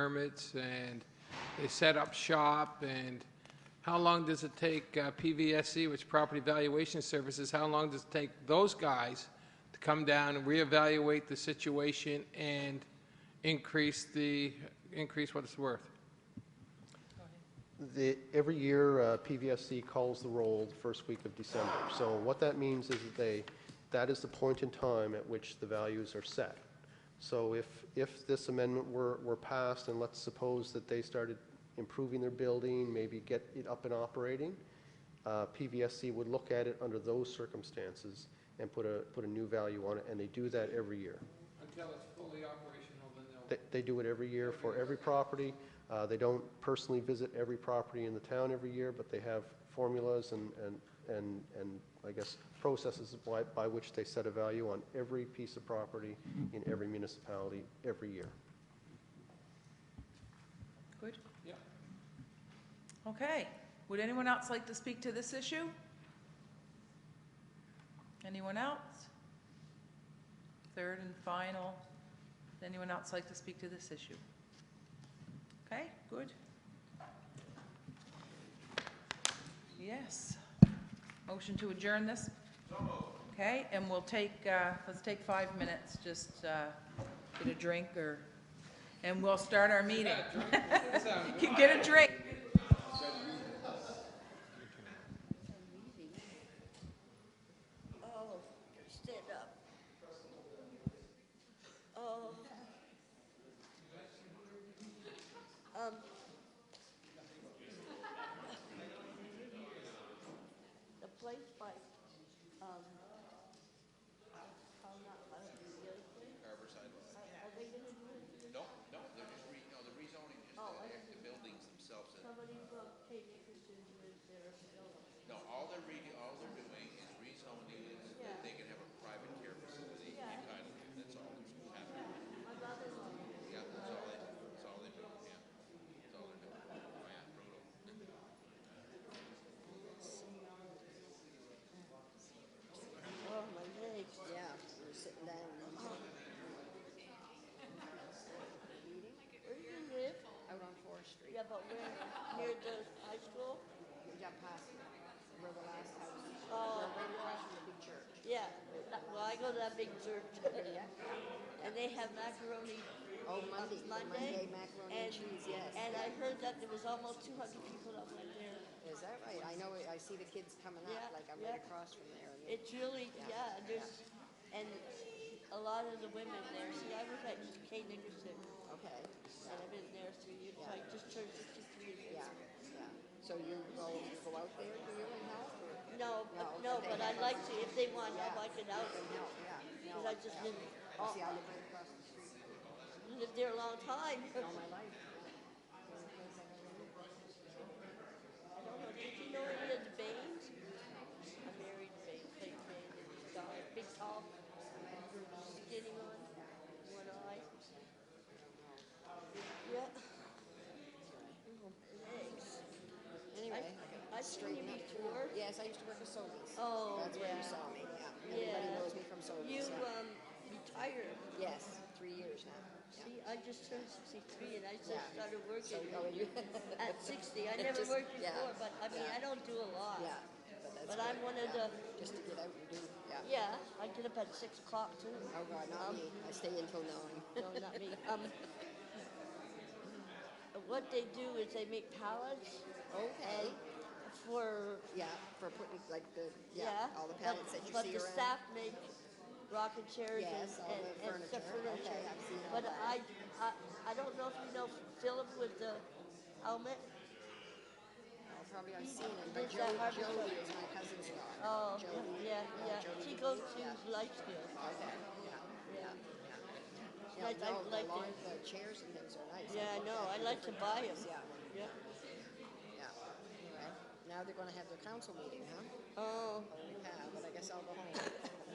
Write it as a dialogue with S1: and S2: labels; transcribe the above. S1: permits and they set up shop and how long does it take uh, PVSC, which Property Valuation Services, how long does it take those guys to come down and reevaluate the situation and increase the, increase what it's worth?
S2: The, every year, uh, PVSC calls the roll the first week of December. So what that means is that they, that is the point in time at which the values are set. So if, if this amendment were, were passed, and let's suppose that they started improving their building, maybe get it up and operating, uh, PVSC would look at it under those circumstances and put a, put a new value on it, and they do that every year.
S1: Until it's fully operational, then they'll
S2: They, they do it every year for every property. Uh, They don't personally visit every property in the town every year, but they have formulas and, and, and, and I guess processes by, by which they set a value on every piece of property in every municipality every year.
S3: Good?
S1: Yeah.
S3: Okay. Would anyone else like to speak to this issue? Anyone else? Third and final. Would Anyone else like to speak to this issue? Okay, good. Yes. Motion to adjourn this? Okay, and we'll take, uh, let's take five minutes, just uh, get a drink or, and we'll start our meeting. You can get a drink.
S4: Oh, stand up. Oh. Um. The place by, um, how not, I don't know, the other place? Are are they gonna do it?
S5: No, no, they're just re, no, the rezoning is
S4: Oh, I
S5: the,
S4: see.
S5: the buildings themselves. that-
S4: Somebody from Patriot Christian lives there, so.
S5: No, all they're re, all they're doing is rezoning is that they can have a private care facility entitled, that's all that's happening. Yeah, that's all they, that's all they do, yeah. That's all they're doing. Oh, yeah, brutal.
S4: Oh, my legs, yeah, I'm sitting down. Where do you live?
S6: out on Forest Street.
S4: Yeah, but where, near the high school?
S6: We got past where the last house is.
S4: Oh.
S6: We're right across from the big church.
S4: Yeah, that- well, I go to that big church.
S6: Yeah.
S4: And they have macaroni.
S6: Oh,
S4: on
S6: Monday, Monday macaroni and cheese, yes.
S4: And I heard that there was almost two hundred people up there.
S6: Is that right? I know, it- I see the kids coming
S4: Yeah,
S6: up, like I'm right
S4: yeah.
S6: across from there. and
S4: It's really, yeah, and there's, and a lot of the women there, see, I was at Kay Nickerson,
S6: they- Okay,
S4: and I've been there three years, so I just turned sixty-three years.
S6: yeah, yeah. So you go, go out there, do you and help or?
S4: No,
S6: No,
S4: but-
S6: but
S4: no,
S6: they
S4: but I'd
S6: have-
S4: like to, if they want help,
S6: Yeah.
S4: I could help.
S6: And help, yeah.
S4: Because I just live,
S6: Oh, see, I live right across the street
S4: lived there a long time.
S6: all Oh, my life.
S4: I don't know, did you know any of the Baines? I married Bain, played Bain, and he's tall, big tall, skinny one, one eye. Yeah. Oh, Legs. I,
S6: Anyway,
S4: I seen you
S6: straighten up.
S4: before.
S6: Yes, I used to work at Sobeys.
S4: Oh,
S6: That's where
S4: yeah.
S6: you saw me, yeah. Everybody
S4: Yeah. um,
S6: knows me from
S4: You,
S6: Sobeys, yeah.
S4: um, retired.
S6: Yes, three years now. yeah.
S4: See, I just turned sixty-three and I
S6: Yeah.
S4: just started
S6: So,
S4: working
S6: oh, you,
S4: at sixty. I
S6: It
S4: never
S6: just-
S4: worked
S6: yeah,
S4: before, but I mean,
S6: yeah.
S4: I don't do a lot.
S6: yeah, but that's
S4: But
S6: good,
S4: I'm one of
S6: yeah.
S4: the-
S6: Just to get out and do,
S4: Yeah,
S6: yeah.
S4: I get up at six o'clock too.
S6: Oh, God,
S4: Um,
S6: not me. I stay until nine.
S4: No, not me. Um, what they do is they make pallets
S6: Okay,
S4: and for,
S6: yeah, for putting like the,
S4: yeah.
S6: yeah, all the
S4: but-
S6: pallets that you see
S4: But
S6: around.
S4: the staff make rocking chairs and,
S6: Yes, all
S4: and-
S6: the
S4: and stuff furniture.
S6: furniture. Okay, I've seen all
S4: But
S6: that.
S4: I, I, I don't know if you know Philip with the helmet.
S6: Oh, Probably I've seen it, but
S4: There's
S6: Jo-
S4: that Harvey
S6: Jody is my cousin's daughter.
S4: Oh,
S6: Jody.
S4: yeah, yeah.
S6: Jody
S4: She
S6: Dees,
S4: goes
S6: yeah.
S4: to life skills.
S6: Okay, yeah, yeah,
S4: She
S6: yeah.
S4: likes- I
S6: Yeah, no, the
S4: like
S6: lawn,
S4: it.
S6: the chairs and things are nice.
S4: Yeah, I
S6: I've looked
S4: know.
S6: at
S4: I
S6: the
S4: like to
S6: different
S4: buy
S6: ones,
S4: 'em.
S6: Yeah,
S4: Yeah.
S6: yeah. Anyway, now they're gonna have their council meeting, huh?
S4: Oh,
S6: Holy cow, but I guess I'll go home.